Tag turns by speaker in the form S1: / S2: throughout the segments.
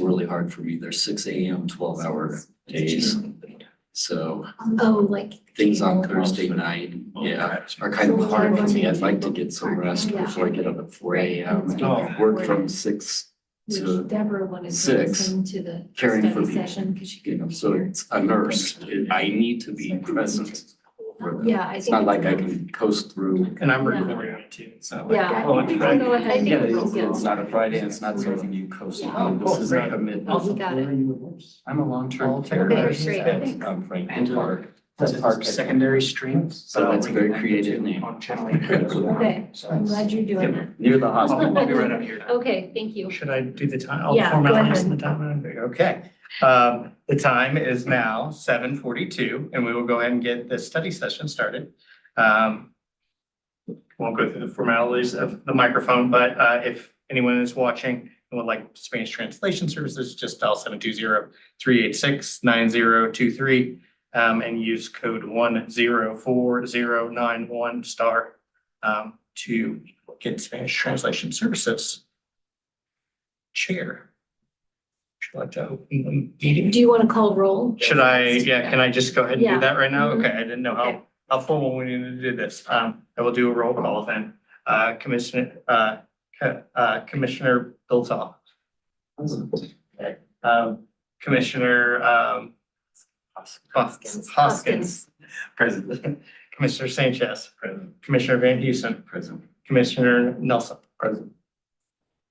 S1: really hard for me. They're six AM, twelve hour days. So
S2: Oh, like.
S1: things on
S2: cable.
S1: Thursday night, yeah, are kind of hard for me. I'd like to get some rest before I get up at four AM.
S3: Oh.
S1: Work from six to,
S2: Which Deborah wanted to
S1: six,
S2: listen to the
S1: caring for
S2: study
S1: people.
S2: session because she
S1: you know,
S2: couldn't
S1: so
S2: hear.
S1: it's a nurse. I need to be present. for them.
S2: Yeah, I think.
S1: It's not
S2: it's-
S1: like I can coast through.
S3: And I'm recording it too, so.
S2: Yeah, I
S3: Oh,
S2: think we can go
S3: right.
S2: ahead and.
S1: Yeah, it's it's not a Friday, it's not something you coast on. This is like a mid,
S2: Oh, we got it.
S1: I'm a long-term care
S3: Okay,
S1: nurse
S2: great,
S1: at
S2: thanks.
S1: um, Franklin Park.
S3: That's our secondary stream.
S1: So that's a very creative name.
S3: On channel eight.
S2: Okay, I'm glad Oh, you're doing that.
S1: Near the hospital.
S3: I'll be right up here.
S2: Okay, thank you.
S3: Should I do the time, all the
S2: Yeah, go
S3: formalities and the
S2: ahead.
S3: time? Okay. Um, The time is now seven forty-two, and we will go ahead and get this study session started. Um, Won't go through the formalities of the microphone, but uh, if anyone is watching and would like Spanish translation services, just dial seven two zero three eight six nine zero two three um, and use code one zero four zero nine one star um, to get Spanish translation services chair. Should I to open the meeting?
S2: Do you want to call roll?
S3: Should I, yeah, can I just go ahead and do
S2: Yeah.
S3: that right now?
S2: Mhm.
S3: Okay, I didn't know
S2: Okay.
S3: how, how formal we needed to do this. Um, I will do a roll call then. Uh, Commissioner, uh, Co- uh, Commissioner Biltoff. Okay. Um, Commissioner, um, Hoskins, Hoskins, present. Commissioner Sanchez, present. Commissioner Van Husen, present. Commissioner Nelson, present.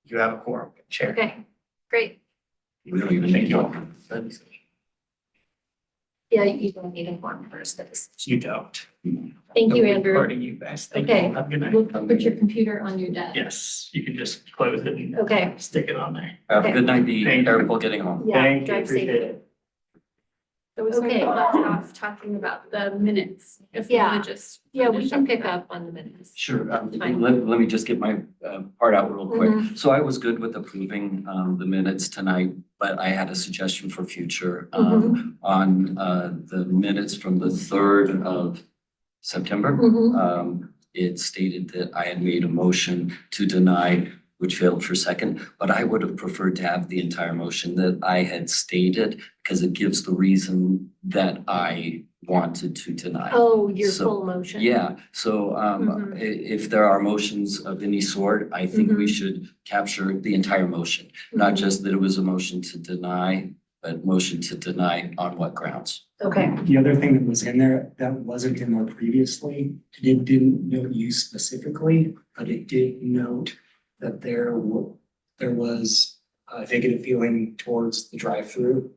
S3: You have a quorum, Chair.
S2: Okay, great.
S1: We don't even need you.
S2: Yeah, you don't need a form first, that is.
S3: You don't.
S2: Thank you,
S3: Nobody
S2: Andrew.
S3: Recording you guys. Thank you.
S2: Okay.
S3: Have a good night.
S2: We'll put your computer on your desk.
S3: Yes, you can just close it and
S2: Okay,
S3: stick it on there.
S1: Have a good night, be
S3: Thank you.
S1: careful getting home.
S2: yeah,
S3: Thank you,
S2: drive
S3: appreciate
S2: safe.
S3: it.
S4: So we started
S2: Okay.
S4: last off talking about the minutes, if we
S2: Yeah.
S4: wanna just.
S2: Yeah, we
S4: finish
S2: can pick
S4: that.
S2: up on the minutes.
S1: Sure, um,
S2: Fine.
S1: let, let me just get my uh, part out real quick. So I was good with approving um, the minutes tonight, but I had a suggestion for future um, on uh, the minutes from the third of September.
S2: Mhm.
S1: um, it stated that I had made a motion to deny, which failed for second, but I would have preferred to have the entire motion that I had stated because it gives the reason that I wanted to deny.
S2: Oh, your
S1: So-
S2: full motion?
S1: Yeah, so um, i- if there are motions of any sort, I think we should capture the entire motion. Not
S4: Mm-hmm.
S2: Mhm.
S1: just that it was a motion to deny, but motion to deny on what grounds?
S2: Okay,
S5: The other thing that was in there that wasn't in there previously, and it didn't note you specifically, but it did note that there were, there was a negative feeling towards the drive-through.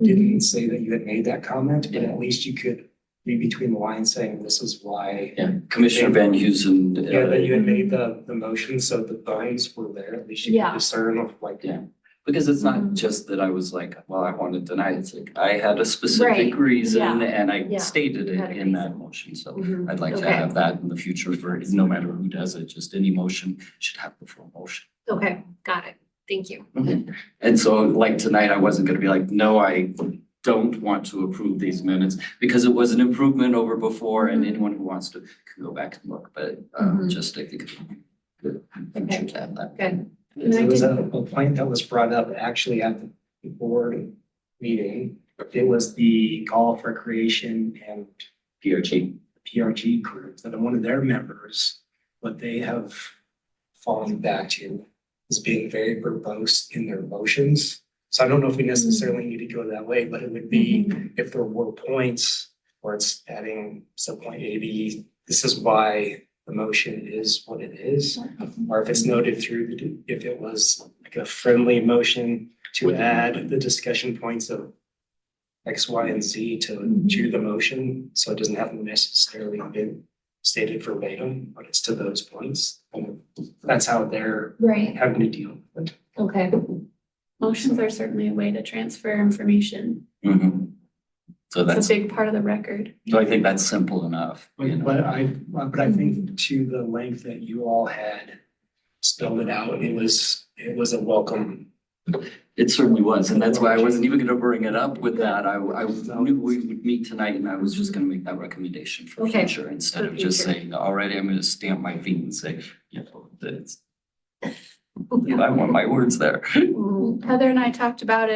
S5: Didn't say that you had made that comment, but at least you could read between the lines saying this is why.
S1: Yeah, Commissioner Van Huzen. uh,
S5: Yeah, that you had made the, the motion, so the lines were there, at least you
S2: Yeah.
S5: could discern of like.
S1: Yeah. Because it's not
S2: Mhm.
S1: just that I was like, well, I want to deny it. It's like I had a specific
S2: Right,
S1: reason
S2: yeah,
S1: and I
S2: yeah.
S1: stated
S2: You had
S1: it
S2: a
S1: in that
S2: reason.
S1: motion. So
S2: Mhm.
S1: I'd like to
S2: Okay.
S1: have that in the future for, no matter who does it, just any motion should have the full motion.
S2: okay, got it. Thank you.
S1: And so like tonight, I wasn't going to be like, no, I don't want to approve these minutes because it was an improvement over before and
S2: Mhm.
S1: anyone who wants to can go back and look, but um
S2: Mhm.
S1: just I think it would be good in the
S2: Okay.
S1: future to have that.
S2: Good. And I
S5: There was
S2: did-
S5: a a point that was brought up actually at the board meeting. It was the golf recreation and
S1: PRG.
S5: PRG group that one of their members, what they have fallen back to is being very verbose in their motions. So I don't know if we necessarily need to go that way, but it would be if there were points where it's adding subpoint A, B, this is why the motion is what it is. Or if it's noted through, the if it was like a friendly motion to add the discussion points of X, Y, and Z to, to the motion, so it doesn't have necessarily been stated verbatim, but it's to those points. And That's how they're
S2: Right,
S5: having to deal with it.
S2: okay.
S4: Motions are certainly a way to transfer information.
S1: Mhm. So that's
S4: It's a big part of the record.
S1: So I think that's simple enough, you
S5: But
S1: know.
S5: but I, but I think to the length that you all had spelled it out, it was, it was a welcome.
S1: It certainly was, and that's why I wasn't even gonna bring it up with that. I, I knew we would meet tonight and I was just gonna make that recommendation for
S2: Okay.
S1: future instead
S2: For
S1: of just
S2: future.
S1: saying, already, I'm gonna stamp my feet and say, you know, that it's I want my words there.
S2: Mhm. Mm-hmm.
S4: Heather and I talked about it.